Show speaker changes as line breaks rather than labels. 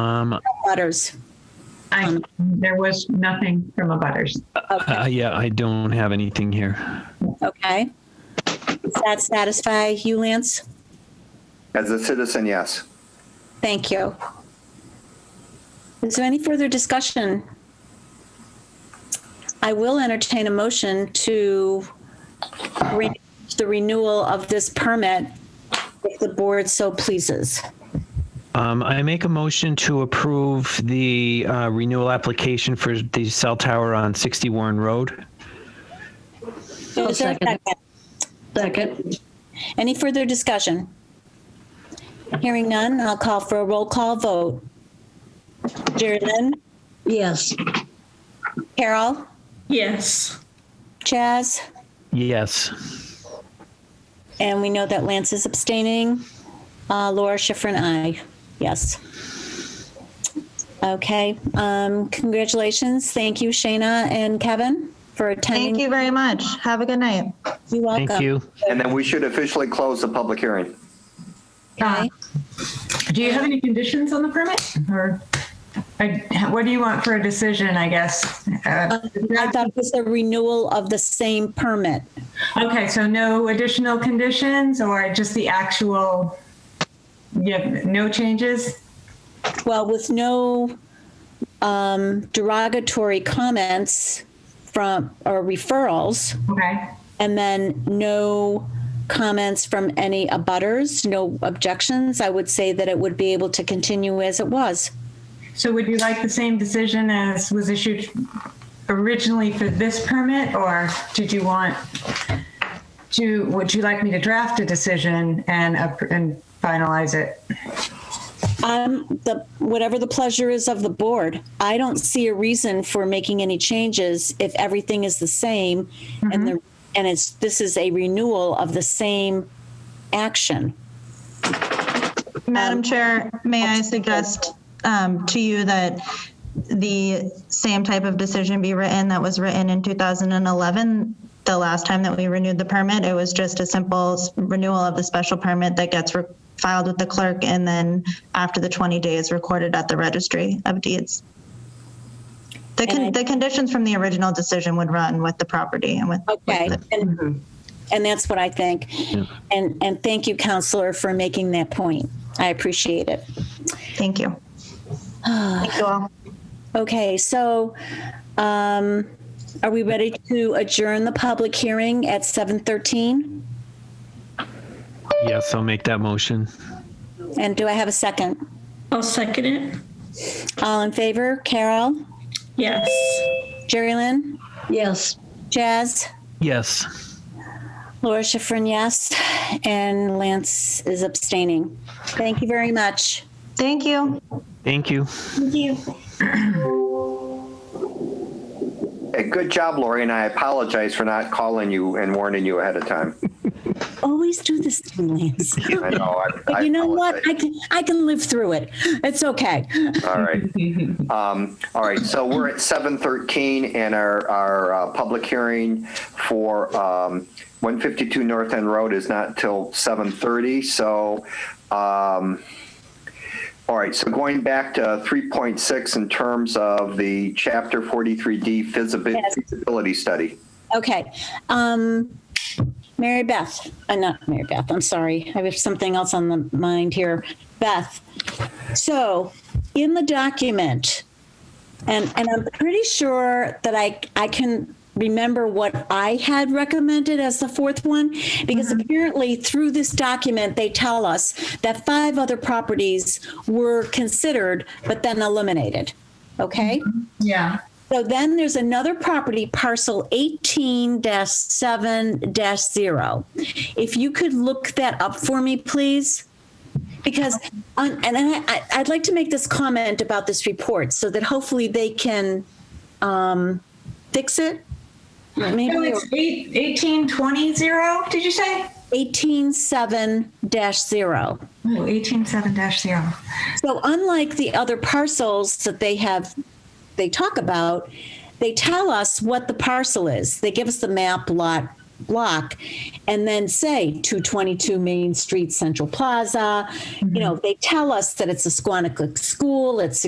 Um,
Butters.
I, there was nothing from a butters.
uh, yeah, I don't have anything here.
Okay. Does that satisfy you, Lance?
As a citizen, yes.
Thank you. Is there any further discussion? I will entertain a motion to re- the renewal of this permit if the board so pleases.
Um, I make a motion to approve the uh, renewal application for the cell tower on 60 Warren Road.
Is there a
second it.
second?
Second,
Any further discussion? Hearing none, I'll call for a roll call vote. Jordan,
yes.
Carol,
Yes.
Chaz,
Yes.
and we know that Lance is abstaining. Uh, Laura Schifrin, aye. Yes. Okay, um, congratulations. Thank you, Shayna and Kevin, for attending.
Thank you very much. Have a good night.
You're welcome.
Thank you.
And then we should officially close the public hearing.
Okay.
Do you have any conditions on the permit or I, what do you want for a decision, I guess? Uh,
I thought it was a renewal of the same permit.
Okay, so no additional conditions or just the actual, yeah, no changes?
Well, with no um, derogatory comments from, or referrals,
Okay,
and then no comments from any abutters, no objections, I would say that it would be able to continue as it was.
so would you like the same decision as was issued originally for this permit? Or did you want to, would you like me to draft a decision and, up- and finalize it?
Um, the, whatever the pleasure is of the board, I don't see a reason for making any changes if everything is the same and the, and it's, this is a renewal of the same action.
Madam Chair, may I suggest um, to you that the same type of decision be written that was written in 2011? The last time that we renewed the permit, it was just a simple s- renewal of the special permit that gets re- filed with the clerk and then after the 20 days recorded at the registry of deeds. The,
And I-
con- the conditions from the original decision would run with the property and with. with
Okay,
the-
and, and that's what I think. And, and thank you, counselor, for making that point. I appreciate it.
Thank you. Thank you all.
Okay, so, um, are we ready to adjourn the public hearing at 7:13?
Yes, I'll make that motion.
And do I have a second?
I'll second it.
All in favor? Carol?
Yes.
Jerry Lynn?
Yes.
Jazz?
Yes.
Laura Schifrin, yes. And Lance is abstaining. Thank you very much.
Thank you.
Thank you.
Hey, Eh, good job, Lori, and I apologize for not calling you and warning you ahead of time.
Always do this to me, Lance.
I know. I- I
You know what? I
apologize.
can, I can live through it. It's okay.
All right. Um, All right, so we're at 7:13 and our, our uh, public hearing for um, 152 North End Road is not till 7:30, so um, All right, so going back to 3.6 in terms of the Chapter 43D feasibi-
Yes.
feasibility study.
Okay. Um, Mary Beth, uh, not Mary Beth, I'm sorry. I have something else on the mind here. Beth. So in the document, and, and I'm pretty sure that I, I can remember what I had recommended as the fourth one, because apparently through this document, they tell us that five other properties were considered, but then eliminated. Okay?
Yeah.
So then there's another property, parcel eighteen seven zero. If you could look that up for me, please? Because, um, and I, I- I'd like to make this comment about this report so that hopefully they can, um, fix it.
So
Maybe
it's eight, eighteen, twenty, zero, did you say?
eighteen seven zero.
Oh, eighteen, seven dash zero.
So unlike the other parcels that they have, they talk about, they tell us what the parcel is. They give us the map, lot, block and then say 222 Main Street, Central Plaza. You know, they tell us that it's a Squanicook school, it's